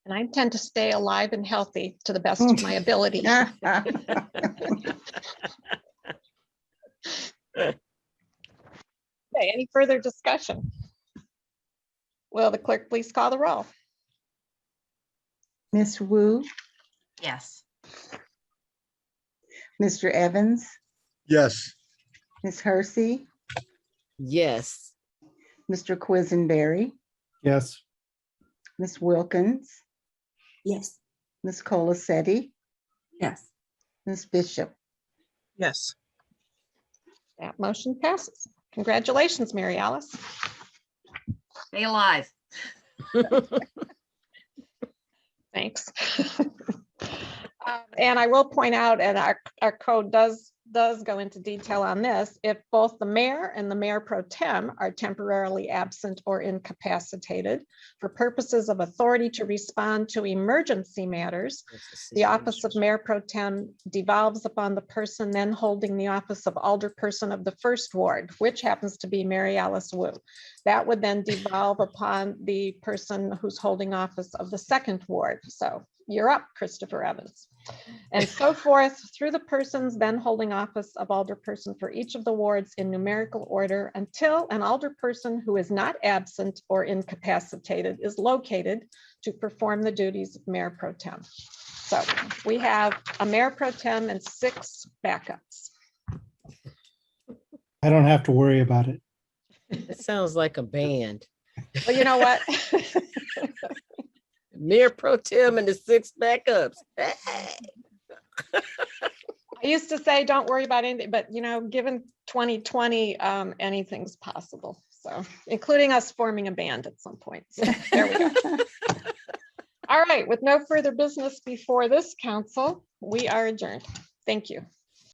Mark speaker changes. Speaker 1: And I intend to stay alive and healthy to the best of my ability. Okay, any further discussion? Will the clerk please call the roll?
Speaker 2: Miss Wu,
Speaker 3: Yes.
Speaker 2: Mr. Evans,
Speaker 4: Yes.
Speaker 2: Miss Hersey,
Speaker 5: Yes.
Speaker 2: Mr. Quisenberry,
Speaker 4: Yes.
Speaker 2: Miss Wilkins,
Speaker 6: Yes.
Speaker 2: Miss Colacetti,
Speaker 6: Yes.
Speaker 2: Miss Bishop.
Speaker 7: Yes.
Speaker 1: That motion passes. Congratulations, Mary Alice.
Speaker 3: Stay alive.
Speaker 1: Thanks. Um, And I will point out, and our, our code does, does go into detail on this, if both the mayor and the mayor pro tem are temporarily absent or incapacitated for purposes of authority to respond to emergency matters, the office of mayor pro tem devolves upon the person then holding the office of alderperson of the first ward, which happens to be Mary Alice Wu. That would then devolve upon the person who's holding office of the second ward. So you're up, Christopher Evans. And so forth through the persons then holding office of alderperson for each of the wards in numerical order until an alderperson who is not absent or incapacitated is located to perform the duties of mayor pro tem. So we have a mayor pro tem and six backups.
Speaker 8: I don't have to worry about it.
Speaker 5: It sounds like a band.
Speaker 1: Well, you know what?
Speaker 5: Mayor Pro Tem and the six backups. Hey.
Speaker 1: I used to say, don't worry about anything, but you know, given 2020, um, anything's possible. So, including us forming a band at some point. So, there we go. All right, with no further business before this council, we are adjourned. Thank you.